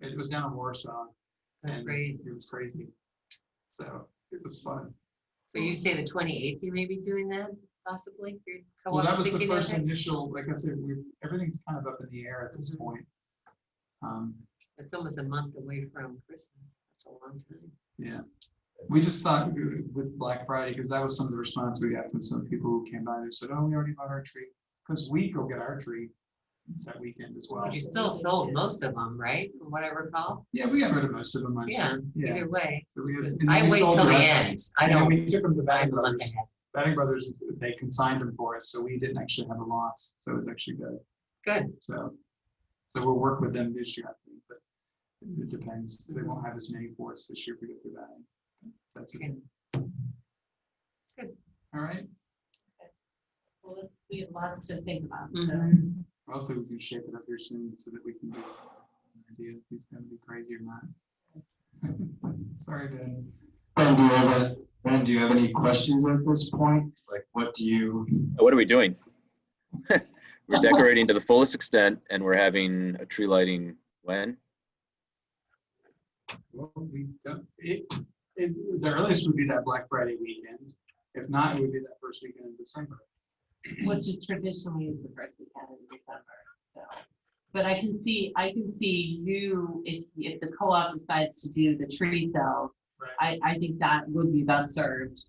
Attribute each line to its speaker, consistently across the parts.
Speaker 1: It was down in Warsaw.
Speaker 2: That's
Speaker 1: and
Speaker 2: great.
Speaker 1: It was crazy. So it was fun.
Speaker 2: So you say the twenty-eighth, you may be doing that possibly? Your
Speaker 1: Well, that
Speaker 2: co-op's
Speaker 1: was the
Speaker 2: thinking of
Speaker 1: first
Speaker 2: it?
Speaker 1: initial, like I said, we, everything's kind of up in the air at this
Speaker 2: Mhm.
Speaker 1: point. Um,
Speaker 2: It's almost a month away from Christmas. That's a long time.
Speaker 1: Yeah, we just thought w- with Black Friday, because that was some of the response we got from some people who came by, they said, oh, we already bought our tree. Because we go get our tree that weekend as well.
Speaker 2: But you still sold most of them, right? From what I recall.
Speaker 1: Yeah, we got rid of most of them, I'm
Speaker 2: Yeah,
Speaker 1: sure. Yeah.
Speaker 2: either way.
Speaker 1: so we had-
Speaker 2: 'cause
Speaker 1: and then
Speaker 2: I
Speaker 1: we
Speaker 2: wait
Speaker 1: sold
Speaker 2: till the
Speaker 1: rest.
Speaker 2: end. I
Speaker 1: And then
Speaker 2: don't,
Speaker 1: We took them to
Speaker 2: I'm
Speaker 1: Batting
Speaker 2: a month
Speaker 1: Brothers.
Speaker 2: ahead.
Speaker 1: Batting Brothers, they consigned them for us, so we didn't actually have a loss, so it was actually good.
Speaker 2: Good.
Speaker 1: So, so we'll work with them this year, I think, but it depends. They won't have as many for us this year if we go through that. That's it.
Speaker 2: Okay. Good.
Speaker 1: All right.
Speaker 3: Well, it's- we have lots to think about, so.
Speaker 2: Mhm.
Speaker 1: Well, Hopefully we can shape it up here soon so that we can get an idea if he's gonna be crazy or not. Sorry, Ben.
Speaker 4: Ben, do you have, a- Ben, do you have any questions at this point? Like, what do you,
Speaker 5: What are we doing? We're decorating to the fullest extent and we're having a tree lighting when?
Speaker 1: Well, we don't, it, it, the earliest would be that Black Friday weekend. If not, it would be that first weekend in December.
Speaker 3: Which is traditionally is the first weekend in December, so. But I can see, I can see you, if, if the co-op decides to do the tree sales,
Speaker 1: Right.
Speaker 3: I, I think that would be best served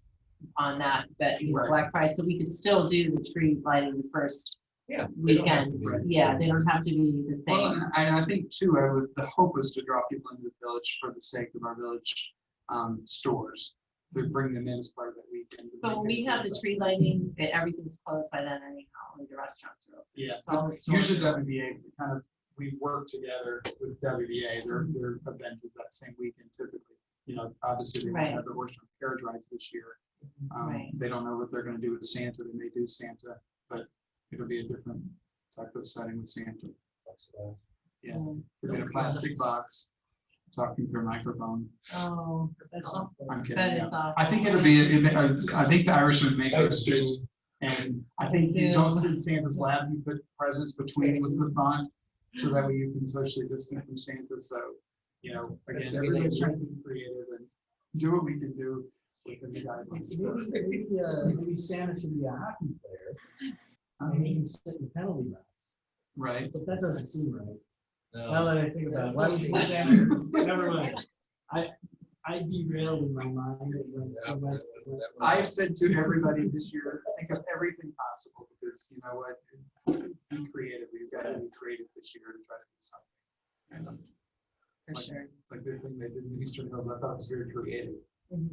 Speaker 3: on that, but, you know,
Speaker 1: Right.
Speaker 3: Black Friday, so we could still do the tree lighting the first
Speaker 1: Yeah,
Speaker 3: weekend.
Speaker 1: Right.
Speaker 3: Yeah, they don't have to be the
Speaker 1: Well,
Speaker 3: same.
Speaker 1: and I, I think too, I was, the hope was to draw people into the village for the sake of our village, um, stores. To bring them in as part of that weekend.
Speaker 3: But when we have the tree lighting, eh, everything's closed by then anyhow, only the restaurants are open.
Speaker 1: Yeah,
Speaker 3: So all the stores
Speaker 1: Usually
Speaker 3: are open.
Speaker 1: WBA, we kind of, we work together with WBA, their, their event is that same weekend typically. You know, obviously they won't
Speaker 3: Right. Mm-hmm.
Speaker 1: have the worship carriage rides this year. Um,
Speaker 3: Right.
Speaker 1: They don't know what they're gonna do with Santa, they may do Santa, but it'll be a different type of setting with Santa. Yeah,
Speaker 3: Mm.
Speaker 1: It's in a
Speaker 2: Okay.
Speaker 1: plastic box, talking through a microphone.
Speaker 3: Oh, that's awful.
Speaker 1: I'm kidding.
Speaker 3: That
Speaker 1: yeah.
Speaker 3: is awful.
Speaker 1: I think it'll be, it may- I I think the Irish would make a suit. And I think you don't
Speaker 3: Zoom.
Speaker 1: sit in Santa's lap, you put presents between with the font, so that way you can socially distance from Santa, so, you know, again,
Speaker 2: That's a good
Speaker 1: everybody's
Speaker 2: idea.
Speaker 1: trying to be creative and do what we can do within the guidelines. So,
Speaker 6: Maybe uh, maybe Santa should be a hockey player,
Speaker 1: um,
Speaker 6: and he can sit in penalty box,
Speaker 1: Right,
Speaker 6: but that doesn't seem right. Now
Speaker 7: No,
Speaker 6: that I think about it, why would you Santa, never mind. I, I derailed in my mind. when-
Speaker 7: that- that-
Speaker 6: when- when-
Speaker 7: that one-
Speaker 1: I've said to everybody this year, think of everything possible, because you know what? Be creative, we've got to be creative this year to try to do something.
Speaker 2: For
Speaker 1: Like-
Speaker 2: sure.
Speaker 1: Like the thing they did in the Eastern Hills, I thought was very creative.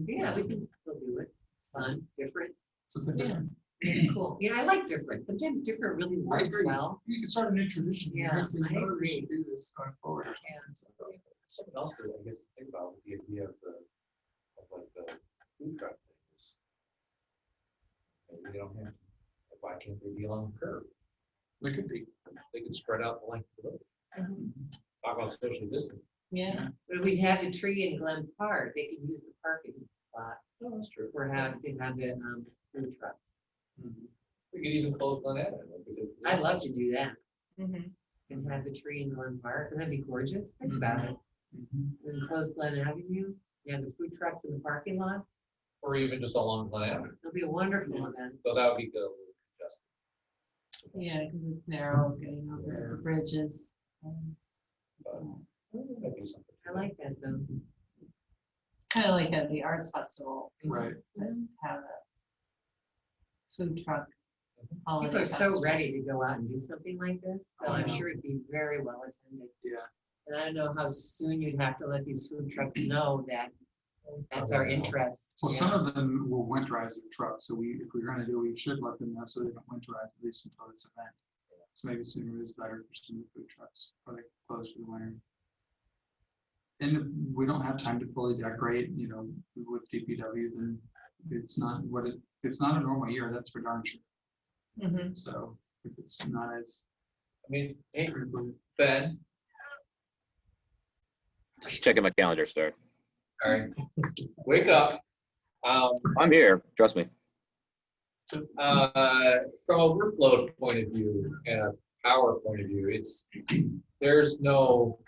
Speaker 2: Yeah, we can still do it. Fun, different,
Speaker 1: Something
Speaker 2: Yeah.
Speaker 1: different.
Speaker 2: cool. You know, I like different. Sometimes different really works
Speaker 1: agree.
Speaker 2: well.
Speaker 1: You can start a new tradition. you know,
Speaker 2: Yeah,
Speaker 1: say, you
Speaker 2: I
Speaker 1: know what, We
Speaker 2: agree.
Speaker 1: should do this going forward.
Speaker 2: Yeah.
Speaker 1: So,
Speaker 7: Something else that I guess to think about with the idea of the, of like the food truck things. Maybe they don't have, why can't they be along the curb?
Speaker 1: There could be. Mm-hmm.
Speaker 7: They can spread out the length of the road. Talk about social distancing.
Speaker 3: Yeah.
Speaker 2: But if we had a tree in Glen Park, they could use the parking spot
Speaker 7: No, that's true.
Speaker 2: for having, they have the, um, food trucks.
Speaker 1: Mm-hmm.
Speaker 7: We could even close on that.
Speaker 2: I'd love to do that
Speaker 3: Mhm.
Speaker 2: and have the tree in Glen Park. That'd be gorgeous.
Speaker 1: Mm-hmm.
Speaker 2: Think about it.
Speaker 1: Mhm.
Speaker 2: And then close Glen Avenue. You have the food trucks in the parking lot.
Speaker 7: Or even just along Glen Avenue,
Speaker 2: It'll be a wonderful event.
Speaker 7: so that would be good. Just-
Speaker 3: Yeah, because it's narrow, getting over the bridges. um, so.
Speaker 7: that'd be something.
Speaker 2: I like that though.
Speaker 3: Kind of like at the arts festival. we
Speaker 1: Right.
Speaker 3: could Have a food truck.
Speaker 2: People
Speaker 3: holiday
Speaker 2: are so
Speaker 3: festival.
Speaker 2: ready to go out and do something like this, so
Speaker 1: Oh, I
Speaker 2: I'm
Speaker 1: know.
Speaker 2: sure it'd be very well attended.
Speaker 1: Yeah.
Speaker 2: And I don't know how soon you'd have to let these food trucks know that that's our
Speaker 7: Probably not.
Speaker 2: interest.
Speaker 1: Oh, Well,
Speaker 2: yeah.
Speaker 1: some of them will winterize the truck, so we, if we're gonna do, it, we should let them know so they don't winterize at least until this event. So maybe sooner is better for some of the food trucks, or they close for the winter. And we don't have time to fully decorate, you know, with DPW, then it's not what it, it's not a normal year, that's for darn sure.
Speaker 3: Mhm.
Speaker 1: So if it's not as.
Speaker 7: I mean, hey, Ben,
Speaker 5: Just checking my calendar, sir.
Speaker 7: all right, wake up. Um,
Speaker 5: I'm here, trust me.
Speaker 7: uh, from a workload point of view and a power point of view, it's, there's no